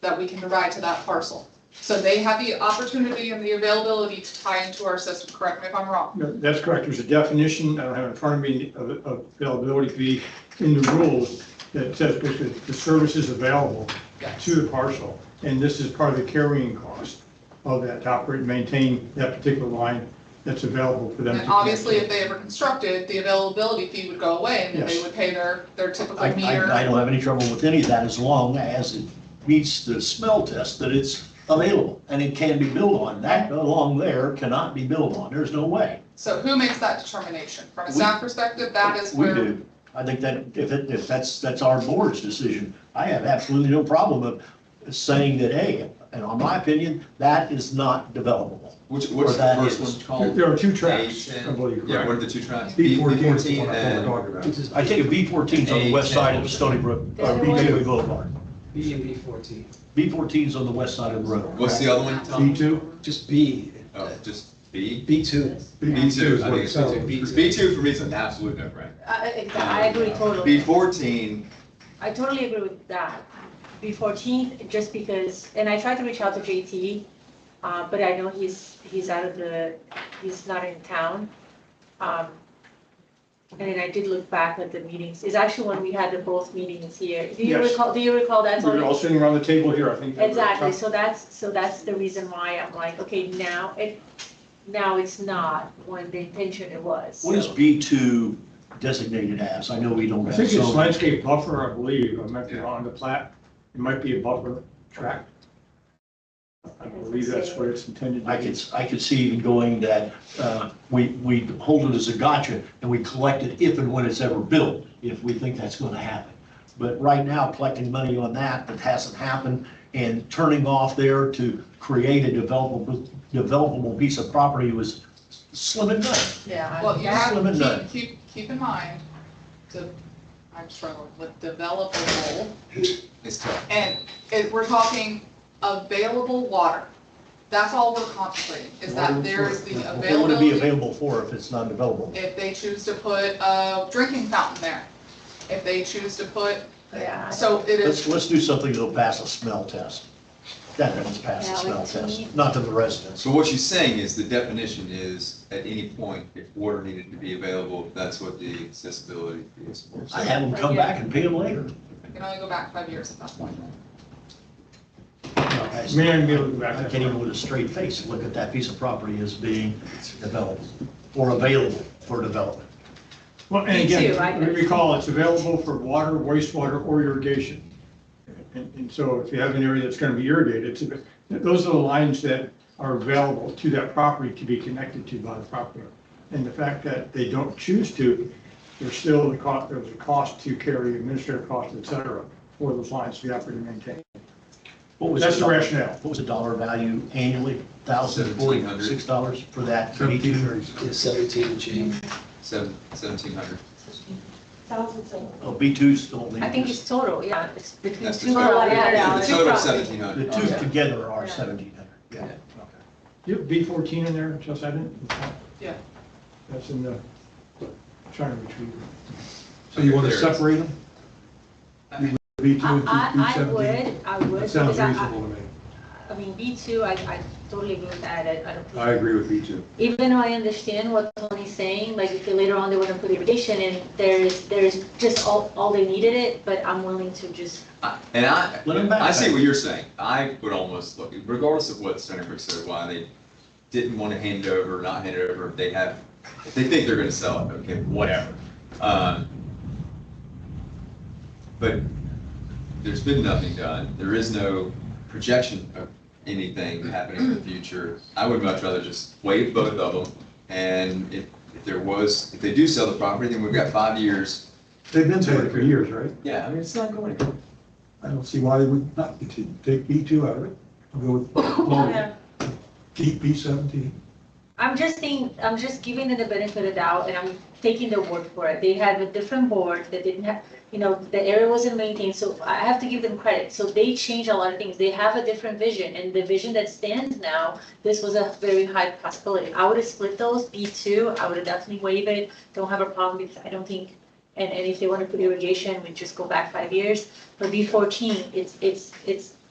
that we can provide to that parcel. So they have the opportunity and the availability to tie into our system, correct me if I'm wrong. No, That's correct. There's a definition, I don't have it in front of me, of of availability fee in the rules that says basically the service is available Yes. to the parcel. And this is part of the carrying cost of that to operate and maintain that particular line that's available for them. to And obviously, if they ever constructed, the availability fee would go away and then they Yes. would pay their, their typical I, I, I meter. don't have any trouble with any of that as long as it meets the smell test that it's available and it can be built on. That along there cannot be built on. There's no way. So who makes that determination? From a We- staff perspective, that is We where, do. I think that if it, if that's, that's our board's decision, I have absolutely no problem of saying that, hey, and on my opinion, that is not developable. Which, Or what's the that is- first one There called? there are two A tracks, I ten? believe. Yeah, what are correct? the two tracks? B fourteen is the B14 one I'm and talking about. I think a B fourteen's on the west side of Stony Brook, or B two Boulevard. B and B fourteen, B fourteen's on the west side of the road. what's the other one, B Tom? two? just B. Oh, just B? B two. B two, is I what think it it's sounds. B two. B two for me is an absolute no brainer. I, I- Uh, I agree B totally. fourteen, I totally agree with that. B fourteen, just because, and I tried to reach out to JT, uh, but I know he's, he's out of the, he's not in town. Um, And then I did look back at the meetings. It's actually when we had the both meetings here. Do you Yes. recall, do you recall that? We're all sitting around the table here, I think. that we're- Exactly, so that's, so that's the reason why I'm like, okay, now it, now it's not when the intention it was. What is B two designated as? I know we don't I have. think it's zoning. landscape buffer, I believe, I might be Yeah. wrong, the plat, it might be a buffer track. I believe that's what it's intended I to be. could, I could see even going that, uh, we, we hold it as a gotcha and we collect it if and when it's ever built, if we think that's gonna happen. But right now, collecting money on that, that hasn't happened, and turning off there to create a developable, developable piece of property was slim and none. Yeah. well, you Slim and have, none. keep, keep, keep in mind, the, I'm struggling with developable. it's tough. And it, we're talking available water. That's all we're contemplating, is that there is the What would it be availability. available for if it's not available? If they choose to put a drinking fountain there, if they choose to put, Yeah. so it is, Let's, let's do something that'll pass a smell test. That one's passed a smell test, not to the residents. So what you're saying is the definition is at any point, if water needed to be available, that's what the accessibility fee is for. I have them come back and pay them later. you can only go back five years at that point. May I be able to go back I that can't even far? with a straight face look at that piece of property as being developed or available for development. Well, and Me again, too, I- we recall, it's available for water, wastewater, or irrigation. And, and so if you have an area that's gonna be irrigated, it's, a- those are the lines that are available to that property to be connected to by the property. And the fact that they don't choose to, there's still the cost, there's a cost to carry, administrative cost, et cetera, for those lines to be operated and maintained. What was That's the dollar- rationale. What was the dollar value annually? Thousand forty-six dollars for that? B2? Yeah, seventeen and change. Seven, seventeen hundred. Thousands of. Oh, B2's only. I think it's total, yeah, it's between That's the two total. and The total is Oh, yeah. seventeen The hundred. two together are Yeah. seventeen hundred. Yeah. Do you have B fourteen in there, Chelsea, I didn't? Yeah. That's in the, I'm trying to retrieve. it. So you wanna Separate them? B two and I, I, I B would, I would, That because sounds I, reasonable I- to me. I mean, B two, I, I totally agree with that, I, I don't. think- agree with you too. Even though I understand what Tony's saying, like, if later on they want to put irrigation in, there's, there's just all, all they needed it, but I'm willing to just, And I, Let him back. I see what you're saying. I would almost look, regardless of what Stony Brook said, why they didn't want to hand it over, or not hand it over, if they have, if they think they're gonna sell it, okay, whatever. Um, But there's been nothing done. There is no projection of anything happening in the future. I would much rather just waive both of them. And if, if there was, if they do sell the property, then we've got five years. They've been doing it for years, right? Yeah, I mean, it's not going to. I don't see why they would not continue, take B two out of it, and go with, well, keep B seventeen. I'm just saying, I'm just giving them the benefit of doubt and I'm taking their word for it. They had a different board that didn't have, you know, the area wasn't maintained, so I have to give them credit. So they changed a lot of things. They have a different vision and the vision that stands now, this was a very high possibility. I would have split those, B two, I would have definitely waived it, don't have a problem because I don't think And, and if they want to put irrigation, we just go back five years. But B fourteen, it's, it's, it's